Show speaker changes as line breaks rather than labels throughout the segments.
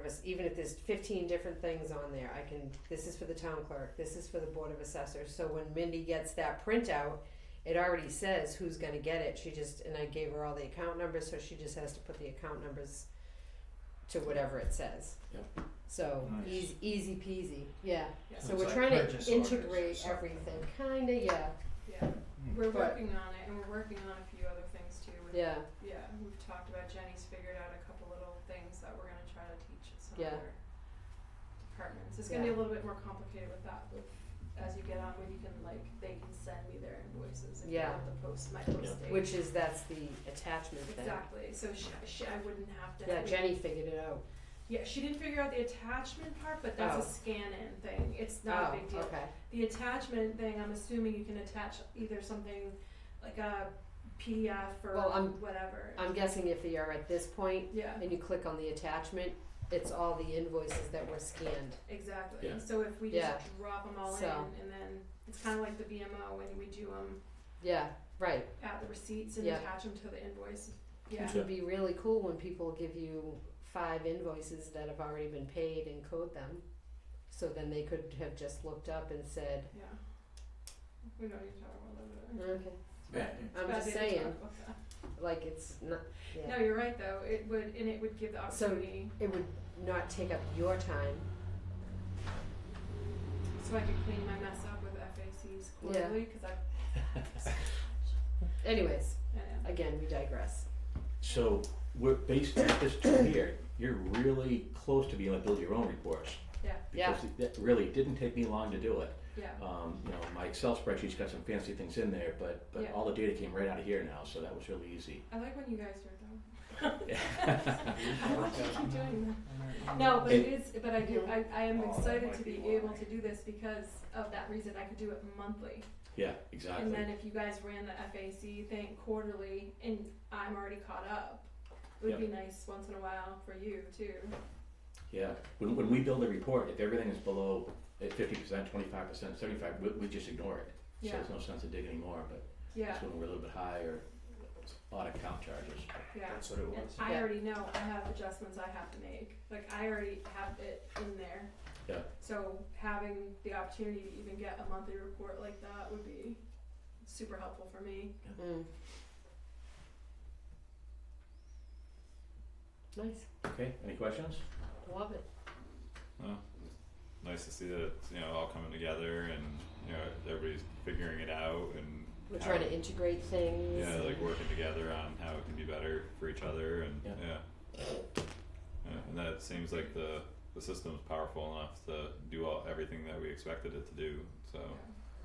service, even if there's fifteen different things on there, I can, this is for the town clerk, this is for the board of assessors, so when Mindy gets that printout, it already says who's gonna get it, she just, and I gave her all the account numbers, so she just has to put the account numbers to whatever it says. Yep. So,
Nice.
easy, easy peasy, yeah,
Yeah.
so
It's
we're
like
trying to
purchase orders or
integrate
something.
everything, kinda, yeah,
Yeah,
Hmm.
we're
But-
working on it, and we're working on a few other things too. We're-
yeah,
Yeah, we've talked about Jenny's figured out a couple little things that we're gonna try to teach at some
Yeah.
other departments. It's gonna be a little bit more complicated with that, but as you get on, when you can like, they can send me their invoices and
Yeah.
fill out the post, my post date.
which is, that's the attachment thing.
Exactly, so she, she, I wouldn't have to.
Yeah,
we-
Jenny figured it out,
Yeah, she didn't figure out the attachment part, but that's a
Oh.
scan-in thing, it's not a big
oh,
deal.
okay,
The attachment thing, I'm assuming you can attach either something like a PDF or
Well, I'm-
whatever.
I'm guessing if you are at this point,
yeah,
and you click on the attachment, it's all the invoices that were scanned.
exactly.
Yeah.
So if we
Yeah.
just drop them all
So.
in, and then it's kind of like the BMO when we do them
Yeah, right.
at the receipts and
Yeah.
attach them to the invoice. Yeah,
Which would be really cool when people give you five invoices that have already been paid and code them. So then they could have just looked up and said,
yeah. We don't need to talk about that.
okay,
Yeah.
Mm-hmm. I'm
Bad
just
day to talk
saying,
about that.
like it's not, yeah.
No, you're right though. It would, and it would give the
So-
opportunity.
It would not take up your time.
So I could clean my mess up with FACs
Yeah.
quarterly because
Anyways,
I, I know.
again, we digress.
So we're based on this two here. You're really close to being able to build your own reports.
Yeah.
Yeah.
Because it- that really didn't take me long to do it.
Yeah.
Um, you know, my Excel spreadsheet's got some fancy things in there, but but
Yeah.
all the data came right out of here now, so that was really easy.
I like when you guys do it though. I want you to keep doing that. No, but it is, but I do, I, I am
Oh, that
excited
might
to
be
be
why.
able to do this because of that reason, I could do it monthly.
Yeah,
And
exactly.
then if you guys ran the FAC thing quarterly and I'm already caught up, it would be nice once in a while for you too.
Yeah. When when we build a report, if everything is below at fifty percent, twenty five percent, seventy five, we we just ignore it. So
Yeah,
there's no sense in digging anymore, but
yeah,
it's when we're a little bit higher, it's a lot of count charges.
yeah.
That's what it
And
was.
I
Yeah.
already know I have adjustments I have to make, like I already have it in there.
Yeah.
So having the opportunity to even get a monthly report like that would be super helpful for me.
Mm. Nice,
Okay, any questions?
love it.
nice to see that it's you know all coming together and you know everybody's figuring it out and
We're
how-
trying to integrate things.
yeah like working together on how it can be better for each other and
Yeah.
yeah yeah, and that seems like the the system's powerful enough to do all everything that we expected it to do so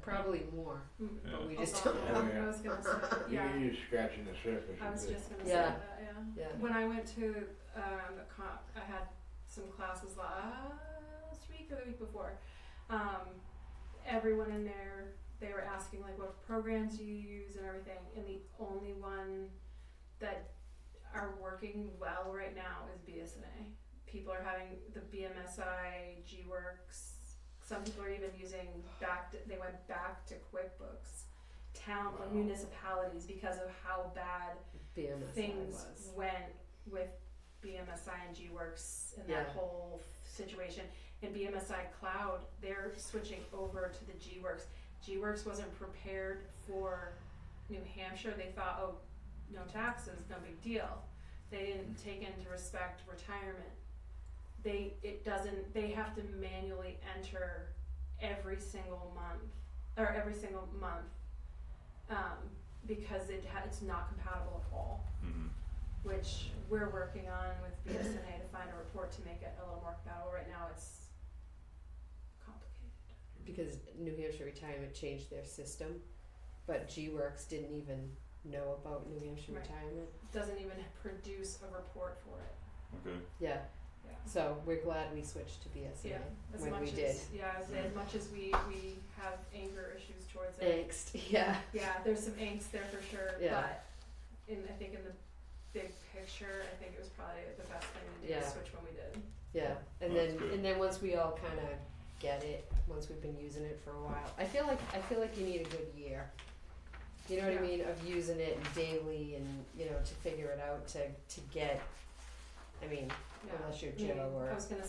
Probably more,
Mm.
yeah
but we just
Although,
don't know.
I was gonna say, yeah,
You're just scratching the surface.
I
of
was
it.
just gonna say
Yeah.
that, yeah.
Yeah.
When I went to um, a comp, I had some classes last week or the week before. Um, everyone in there, they were asking like what programs do you use and everything, and the only one that are working well right now is BSNA. People are having the BMSI, GWorks. Some people are even using back. To, they went back to QuickBooks. Town
Wow.
municipalities because of how bad
BMSI
things
was.
went with BMSI and GWorks and that
Yeah.
whole situation. And BMSI Cloud, they're switching over to the GWorks. GWorks wasn't prepared for New Hampshire. They thought, oh, no taxes, no big deal. They didn't take into respect retirement. They it doesn't. They have to manually enter every single month or every single month um, because it ha- it's not compatible at all
hmm
which we're working on with BSNA to find a report to make it a little more compatible. Right now, it's complicated.
Because New Hampshire Retirement changed their system, but G Works didn't even know about New Hampshire
Right.
Retirement.
It doesn't even produce a report for it.
okay
Yeah,
Yeah.
so we're glad we switched to BSNA.
Yeah, as
When
much
we
as
did.
yeah, as, as much as we we have anger issues towards it.
Angst, yeah,
Yeah, there's some angst there for sure,
Yeah.
but in I think in the big picture, I think it was probably the best thing to do
Yeah.
to switch when we did.
yeah. And
Well, that's
then
good.
and then once we all kind of get it, once we've been using it for a while, I feel like I feel like you need a good year. You know what I
Yeah.
mean of using it daily and you know to figure it out to to get. I mean,
yeah.
unless you're
Maybe-
Joe or.
I was gonna